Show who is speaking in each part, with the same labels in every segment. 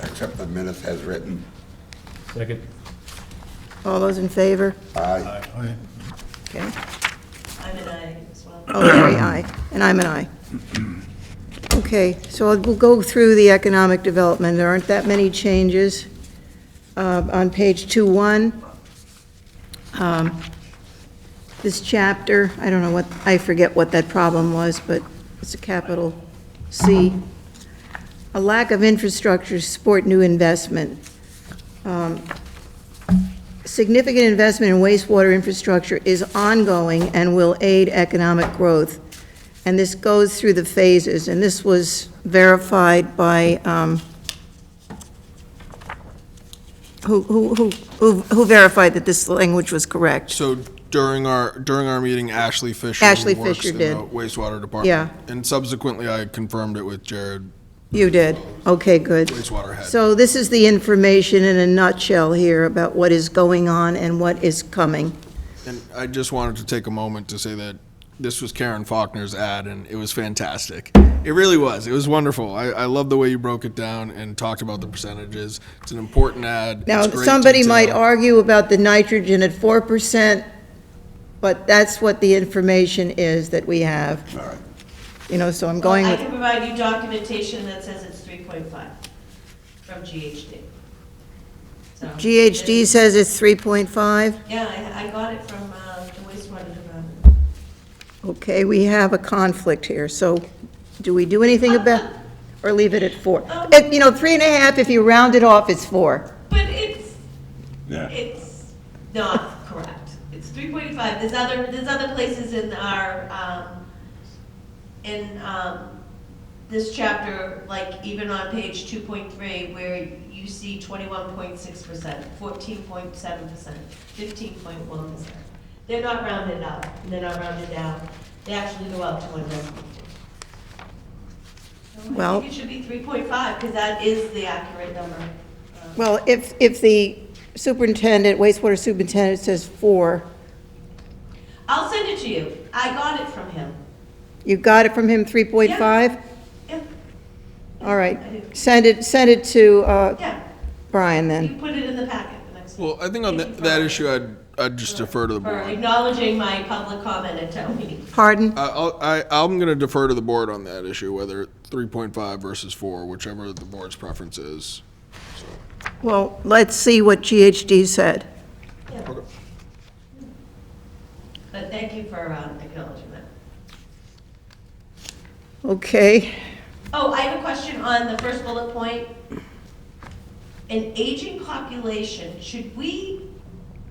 Speaker 1: accept the minutes as written.
Speaker 2: Second.
Speaker 3: All those in favor?
Speaker 1: Aye.
Speaker 3: Okay.
Speaker 4: I'm an aye as well.
Speaker 3: Oh, Larry, aye. And I'm an aye. Okay, so we'll go through the economic development. There aren't that many changes. Uh, On page 2-1, um, this chapter, I don't know what, I forget what that problem was, but it's a capital C. A lack of infrastructure to support new investment. Um, Significant investment in wastewater infrastructure is ongoing and will aid economic growth. And this goes through the phases, and this was verified by, um, who, who, who- who who verified that this language was correct?
Speaker 5: So during our, during our meeting, Ashley Fisher. who
Speaker 3: Ashley
Speaker 5: works
Speaker 3: Fisher
Speaker 5: in
Speaker 3: did.
Speaker 5: the Wastewater Department.
Speaker 3: Yeah.
Speaker 5: And subsequently, I confirmed it with Jared,
Speaker 3: You did? Okay, good.
Speaker 5: wastewater head.
Speaker 3: So this is the information in a nutshell here about what is going on and what is coming.
Speaker 5: And I just wanted to take a moment to say that this was Karen Faulkner's ad, and it was fantastic. It really was. It was wonderful. I, I love the way you broke it down and talked about the percentages. It's an important ad.
Speaker 3: Now,
Speaker 5: It's great
Speaker 3: somebody might
Speaker 5: detail.
Speaker 3: argue about the nitrogen at four percent, but that's what the information is that we have,
Speaker 1: All right.
Speaker 3: you know, so I'm going
Speaker 4: I
Speaker 3: with,
Speaker 4: can provide you documentation that says it's 3.5 from GHD. So-
Speaker 3: GHD says it's three point five.
Speaker 4: Yeah, I, I got it from uh, the wastewater department.
Speaker 3: Okay, we have a conflict here, so do we do anything about, or leave it at four?
Speaker 4: Um,
Speaker 3: If, you know, three and a half, if you round it off, it's four.
Speaker 4: But it's,
Speaker 1: Yeah.
Speaker 4: it's not correct. It's 3.5. There's other, there's other places in our, um, in um, this chapter, like even on page 2.3, where you see 21.6%, 14.7%, 15.1%. They're not rounded up, and they're not rounded down. They actually go up to one decimal. So I
Speaker 3: Well-
Speaker 4: think it should be 3.5, because that is the accurate number. Um,
Speaker 3: Well, if, if the superintendent, wastewater superintendent says four,
Speaker 4: I'll send it to you. I got it from him.
Speaker 3: you got it from him, three point five?
Speaker 4: Yeah,
Speaker 3: All right,
Speaker 4: I do.
Speaker 3: send it, send it to uh,
Speaker 4: yeah.
Speaker 3: Brian
Speaker 4: You
Speaker 3: then.
Speaker 4: put it in the packet the next.
Speaker 5: Well, I think on that, that issue, I'd, I'd just defer to the
Speaker 4: For
Speaker 5: board.
Speaker 4: acknowledging my public comment at town meeting.
Speaker 3: Pardon?
Speaker 5: I, I'll- I, I'm going to defer to the board on that issue, whether 3.5 versus 4, whichever the board's preference is.
Speaker 3: Well, let's see what GHD said.
Speaker 4: Yeah. But thank you for um, acknowledging that.
Speaker 3: Okay,
Speaker 4: Oh, I have a question on the first bullet point. An aging population, should we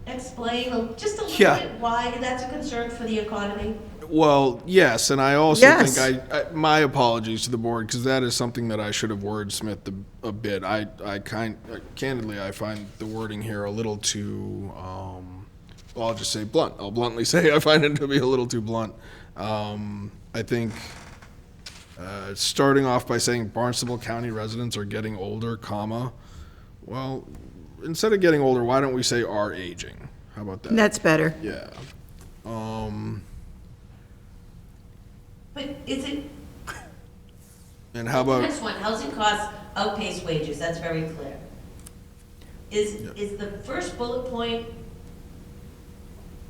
Speaker 4: explain a- just a little
Speaker 5: Yeah.
Speaker 4: bit why that's a concern for the economy?
Speaker 5: Well, yes, and I also
Speaker 3: Yes.
Speaker 5: think I, I my apologies to the board because that is something that I should have wordsmithed a, a bit. I I kind uh, candidly I find the wording here a little too. Um, well, I'll just say blunt. I'll bluntly say I find it to be a little too blunt. Um, I think. Uh, starting off by saying Barnstable County residents are getting older, comma. Well, instead of getting older, why don't we say are aging? How about that?
Speaker 3: that's better.
Speaker 5: yeah. Um,
Speaker 4: But is it,
Speaker 5: and how about
Speaker 4: next one, housing costs outpace wages, that's very clear. Is, is the first bullet point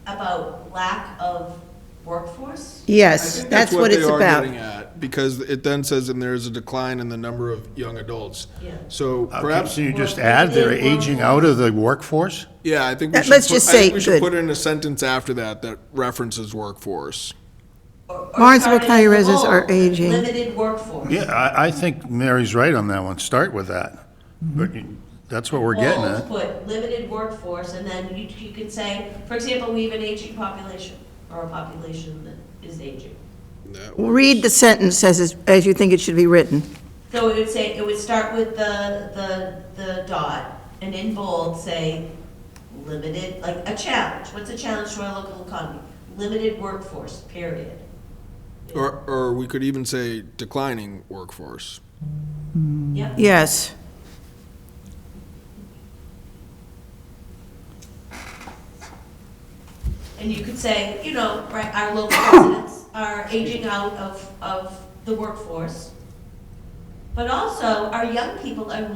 Speaker 4: about lack of workforce?
Speaker 5: I
Speaker 3: Yes,
Speaker 5: think
Speaker 3: that's what
Speaker 5: they
Speaker 3: it's
Speaker 5: are
Speaker 3: about.
Speaker 5: getting at, Because it then says, and there is a decline in the number of young adults.
Speaker 4: Yeah.
Speaker 5: So
Speaker 6: Okay,
Speaker 5: perhaps,
Speaker 6: so Uh, you just add, they're aging out of the workforce?
Speaker 5: yeah, I think we
Speaker 3: That-
Speaker 5: should.
Speaker 3: let's
Speaker 5: put-
Speaker 3: just
Speaker 5: I think
Speaker 3: say
Speaker 5: We
Speaker 3: good.
Speaker 5: should put in a sentence after that that references workforce.
Speaker 4: Or- or
Speaker 3: Barnstable
Speaker 4: started
Speaker 3: County
Speaker 4: as a
Speaker 3: residents
Speaker 4: whole,
Speaker 3: are aging.
Speaker 4: Limited workforce.
Speaker 6: Yeah, I, I think Mary's right on that one, start with that. But you- that's what we're getting
Speaker 4: Bold,
Speaker 6: at.
Speaker 4: Put limited workforce, and then you, you could say, for example, we have an aging population, or a population that is aging.
Speaker 5: That works.
Speaker 3: Read the sentence as, is- as you think it should be written.
Speaker 4: So it would say, it would start with the, the, the dot, and in bold, say, limited, like, a challenge, what's a challenge to our local economy? Limited workforce, period.
Speaker 5: Or, or we could even say declining workforce.
Speaker 4: Yep,
Speaker 3: Yes.
Speaker 4: and you could say, you know, right, our local residents are aging out of, of the workforce. But also, our young people are